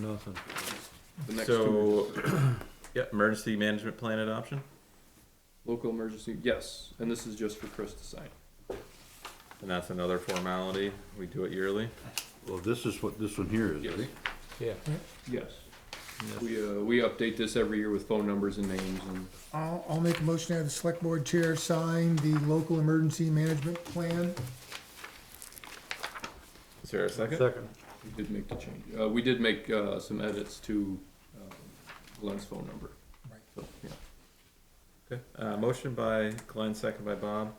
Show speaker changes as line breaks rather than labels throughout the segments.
Nothing.
The next two,
So, yeah, emergency management plan adoption,
local emergency, yes, and this is just for Chris to sign.
and that's another formality. We do it yearly.
Well, this is what this one here is,
Yes.
right?
Yeah.
Yes,
Yes.
we, uh, we update this every year with phone numbers and names and,
I'll, I'll make a motion to have the select board chair sign the local emergency management plan.
Is there a second?
Second.
we did make the change. Uh, we did make, uh, some edits to, um, Glenn's phone number.
Right.
So, yeah.
Okay. Uh, motion by Glenn, second by Bob.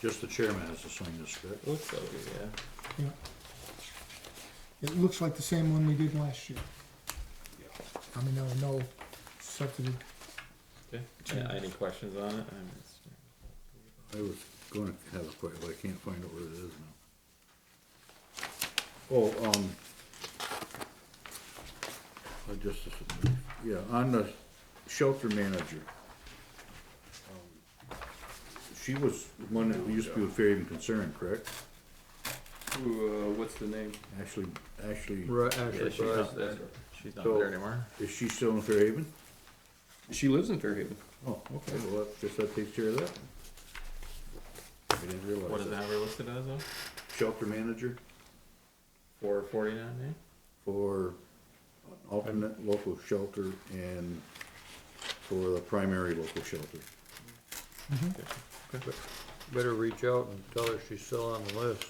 Just the chairman has to sign this, correct?
Looks like it, yeah.
Yeah. It looks like the same one we did last year. I mean, there were no substantive
Okay. Uh, Any questions on it? I'm-
I was gonna have a question, but I can't find out where it is now. Oh, um. I just, yeah, on the shelter manager. um, She was one that used to be with Fairhaven Concern, correct?
Who, uh, what's the name?
Ashley, Ashley,
Right,
Yeah,
actually,
she's not there. She's not there
So-
anymore.
is she still in Fairhaven?
She lives in Fairhaven.
Oh, okay, well, that, guess that takes care of that. I didn't
What
realize
is
that.
that we're listed as though?
Shelter manager
Four forty-nine,
for alternate local shelter and for the primary local shelter. Mm-hmm.
better reach out and tell her she's still on the list.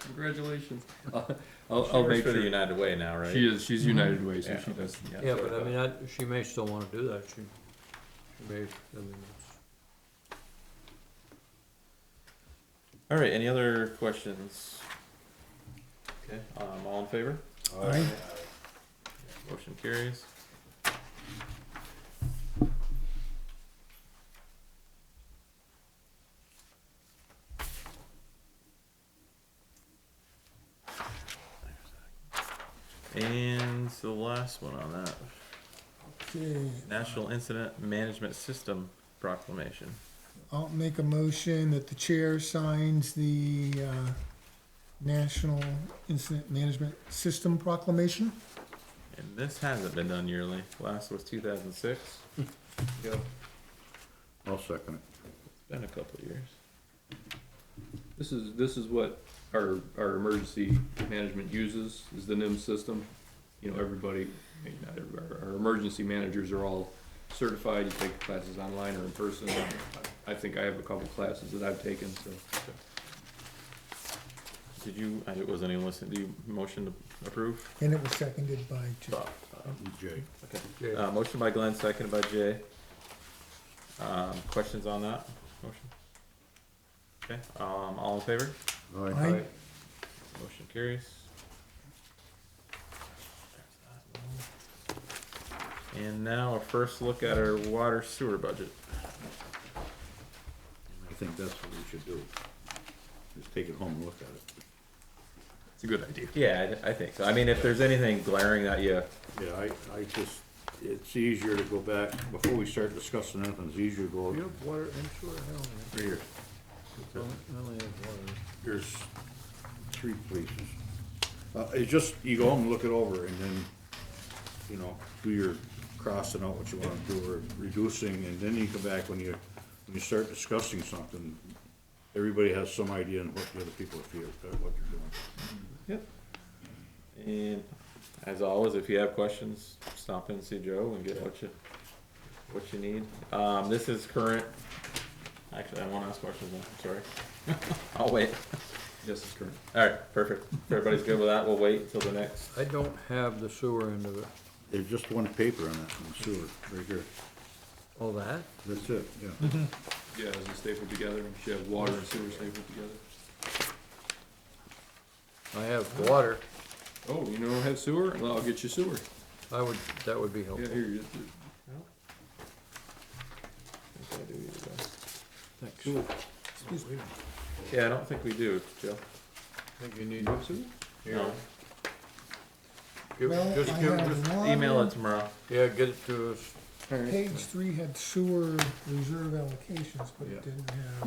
Congratulations.
yeah?
I'll,
She
I'll
works
make
for the
sure.
United Way now, right?
She is, she's United Way, so
Yeah.
she does.
Yeah, but I mean, I, she may still wanna do that, she, she may, I mean, it's,
All right, any other questions? Okay, um, all in favor?
Aye.
Motion carries. And the last one on that,
Okay,
National Incident Management System proclamation.
I'll make a motion that the chair signs the, uh, National Incident Management System Proclamation.
And this hasn't been done yearly. Last was two thousand six.
Yeah.
I'll second it.
It's been a couple of years.
This is, this is what our, our emergency management uses, is the NIM system. You know, everybody, maybe not everybody, our, our emergency managers are all certified, you take classes online or in person. I think I have a couple classes that I've taken, so.
Did you, I wasn't even listening, do you motion to approve?
And it was seconded by Jay.
Bob, uh,
Jay.
Okay.
Jay.
Uh, motion by Glenn, seconded by Jay. Um, questions on that motion? Okay, um, all in favor?
Aye.
Aye.
Motion carries. And now a first look at our water sewer budget.
I think that's what we should do. Just take it home and look at it.
It's a good idea.
Yeah, I, I think so. I mean, if there's anything glaring that you,
Yeah, I, I just, it's easier to go back, before we start discussing anything, it's easier to go.
you have water, I'm sure,
Right here.
I don't, I only have water.
There's three places. Uh, it's just, you go home and look it over and then, you know, do your crossing out what you wanna do or reducing, and then you come back when you, when you start discussing something, everybody has some idea on what the other people feel, uh, what you're doing.
and as always, if you have questions, stop in and see Joe and get what you, what you need. Um, this is current, actually, I won't ask questions now, I'm sorry. I'll wait.
Yes, it's current.
Alright, perfect. If everybody's good with that, we'll wait until the next.
I don't have the sewer end of it.
There's just one paper on that, on sewer, right here.
All that?
That's it, yeah.
Yeah, it's a staple together, you should have water and sewer stapled together.
I have water,
Oh, you don't have sewer? Well, I'll get you sewer.
I would, that would be helpful,
Yeah, here, you
thanks.
Sewer.
Excuse me.
Yeah, I don't think we do, Joe.
I think you need,
you have sewer?
No.
give-
Well, I
just give,
have
just,
one.
Email it tomorrow.
yeah, get it to us.
All right.
Page three had sewer reserve allocations, but
Yeah.
it didn't have.